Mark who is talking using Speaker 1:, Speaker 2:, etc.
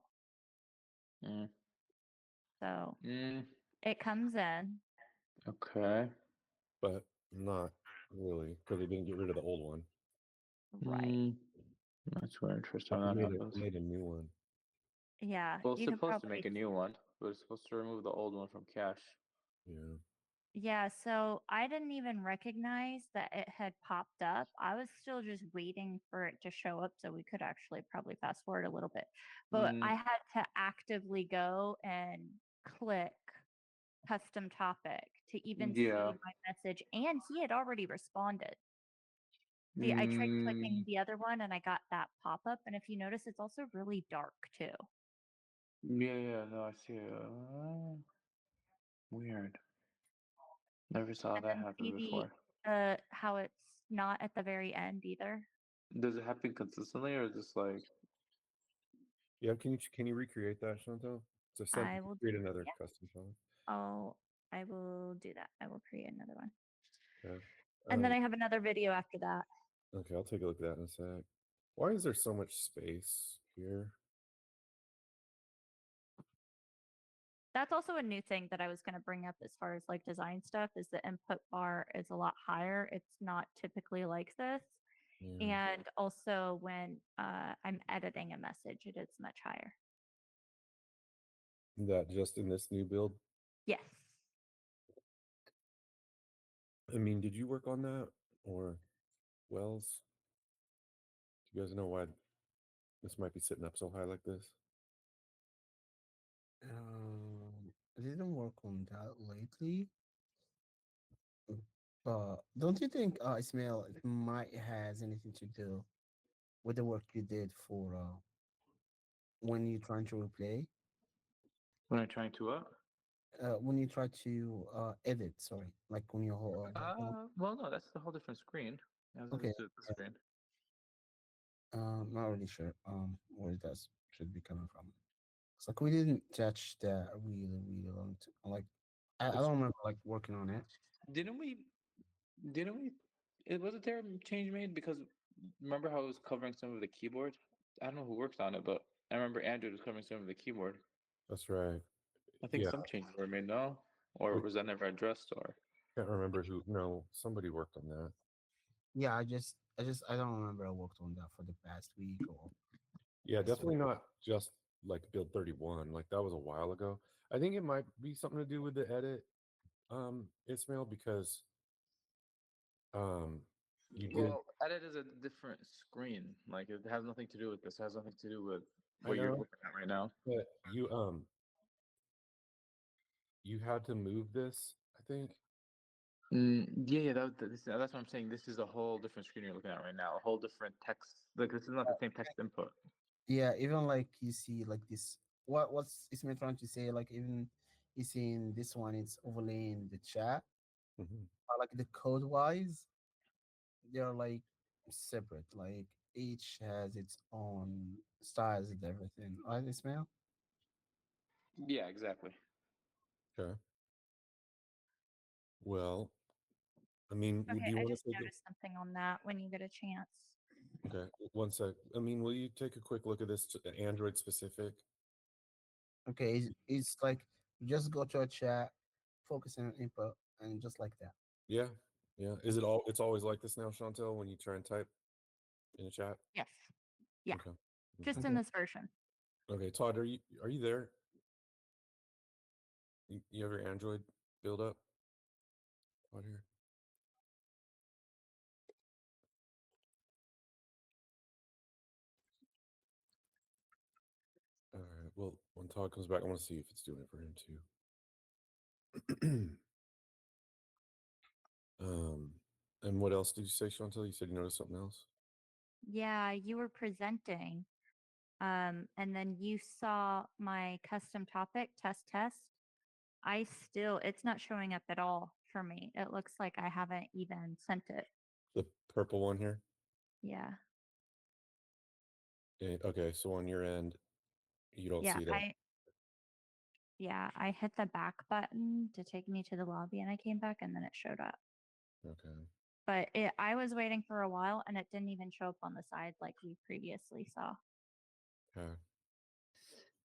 Speaker 1: Mm.
Speaker 2: So
Speaker 1: Mm.
Speaker 2: it comes in.
Speaker 1: Okay.
Speaker 3: but not really because they didn't get rid of the old one.
Speaker 2: Right.
Speaker 1: Mm. That's where interesting.
Speaker 3: They
Speaker 1: That
Speaker 3: made,
Speaker 1: happens.
Speaker 3: a, made a new one.
Speaker 2: Yeah.
Speaker 1: Well, it's
Speaker 2: you could
Speaker 1: supposed to make a
Speaker 2: probably-
Speaker 1: new one, but it's supposed to remove the old one from cache.
Speaker 3: Yeah.
Speaker 2: Yeah, so I didn't even recognize that it had popped up. I was still just waiting for it to show up so we could actually probably fast forward a little bit. But
Speaker 1: Mm.
Speaker 2: I had to actively go and click custom topic to even
Speaker 1: Yeah.
Speaker 2: see my message. And he had already responded. The, I tried clicking
Speaker 1: Mm.
Speaker 2: the other one and I got that pop up. And if you notice, it's also really dark too.
Speaker 1: Yeah, yeah, no, I see. it. Uh, weird. Never saw
Speaker 2: And
Speaker 1: that
Speaker 2: then
Speaker 1: happen
Speaker 2: maybe
Speaker 1: before.
Speaker 2: uh, how it's not at the very end either.
Speaker 1: Does it happen consistently, or is this like?
Speaker 3: Yeah. Can you can you recreate that, Chantal? So send,
Speaker 2: I will
Speaker 3: create another
Speaker 2: yeah.
Speaker 3: custom file.
Speaker 2: I'll I will do that. I will create another one.
Speaker 3: Um,
Speaker 2: And then I have another video after that.
Speaker 3: Okay, I'll take a look at that in a sec. Why is there so much space here?
Speaker 2: That's also a new thing that I was going to bring up as far as like design stuff is the input bar is a lot higher. It's not typically like this.
Speaker 3: Yeah.
Speaker 2: And also when uh, I'm editing a message, it is much higher.
Speaker 3: That just in this new build.
Speaker 2: Yes.
Speaker 3: I mean, did you work on that or Wells? Do you guys know why this might be sitting up so high like this?
Speaker 4: Um, I didn't work on that lately. But don't you think uh, Ismail it might has anything to do with the work you did for uh, when you're trying to replay,
Speaker 1: When I'm trying to what?
Speaker 4: uh, when you try to uh, edit? Sorry, like when you hold. Uh,
Speaker 1: Uh, well, no, that's the whole different screen. I was
Speaker 4: Okay,
Speaker 1: used to the screen.
Speaker 4: uh, not really sure um where that should be coming from. It's like we didn't touch that really, really long. T- like I, I
Speaker 1: It's-
Speaker 4: don't remember like working on it.
Speaker 1: Didn't we? Didn't we? It wasn't there a change made because remember how it was covering some of the keyboard. I don't know who worked on it, but I remember Andrew was covering some of the keyboard.
Speaker 3: That's right.
Speaker 1: I think
Speaker 3: Yeah.
Speaker 1: some changes were made, no? Or
Speaker 3: Which-
Speaker 1: was that never addressed? Or
Speaker 3: Can't remember who. No, somebody worked on that.
Speaker 4: Yeah, I just, I just, I don't remember I worked on that for the past week or
Speaker 3: Yeah,
Speaker 4: That's what
Speaker 3: definitely
Speaker 4: it was.
Speaker 3: not just like build 31. Like that was a while ago. I think it might be something to do with the edit, um, Ismail, because um you did
Speaker 1: well, edit is a different screen. Like it has nothing to do with this. It has nothing to do with
Speaker 3: I
Speaker 1: what you're
Speaker 3: know.
Speaker 1: looking at right now.
Speaker 3: but you um you had to move this, I think.
Speaker 1: Mm, yeah, yeah. That, that- this, that's what I'm saying. This is a whole different screen you're looking at right now. A whole different text. Like this is not the same text input.
Speaker 4: Yeah, even like you see like this. What what's Ismail trying to say? Like even you see in this one, it's overlaying the chat.
Speaker 3: Mhm.
Speaker 2: Mm-hmm.
Speaker 4: But like the code wise, they're like separate. Like each has its own styles and everything. Right, Ismail?
Speaker 1: Yeah, exactly.
Speaker 3: Okay. Well, I mean, would
Speaker 2: Okay,
Speaker 3: you
Speaker 2: I
Speaker 3: want
Speaker 2: just
Speaker 3: to take
Speaker 2: noticed something on that when you get a chance.
Speaker 3: a, okay, one sec. I mean, will you take a quick look at this t- uh, Android specific?
Speaker 4: Okay, it's, it's like you just go to a chat, focus on input, and just like that.
Speaker 3: Yeah. Yeah. Is it all it's always like this now, Chantel, when you try and type in a chat?
Speaker 2: Yes. Yeah.
Speaker 3: Okay.
Speaker 2: Just
Speaker 3: Mm, okay.
Speaker 2: in this version.
Speaker 3: Okay, Todd, are you are you there? You, you have your Android build up? Todd here. All right. Well, when Todd comes back, I want to see if it's doing it for him too. um, and what else did you say, Chantel? You said you noticed something else.
Speaker 2: Yeah, you were presenting. Um, and then you saw my custom topic test test. I still, it's not showing up at all for me. It looks like I haven't even sent it.
Speaker 3: The purple one here.
Speaker 2: Yeah.
Speaker 3: Eh, Okay, so on your end, you don't
Speaker 2: yeah.
Speaker 3: see that.
Speaker 2: I, yeah. I hit the back button to take me to the lobby and I came back and then it showed up.
Speaker 3: okay.
Speaker 2: But it, I was waiting for a while and it didn't even show up on the side like we previously saw.
Speaker 3: Okay.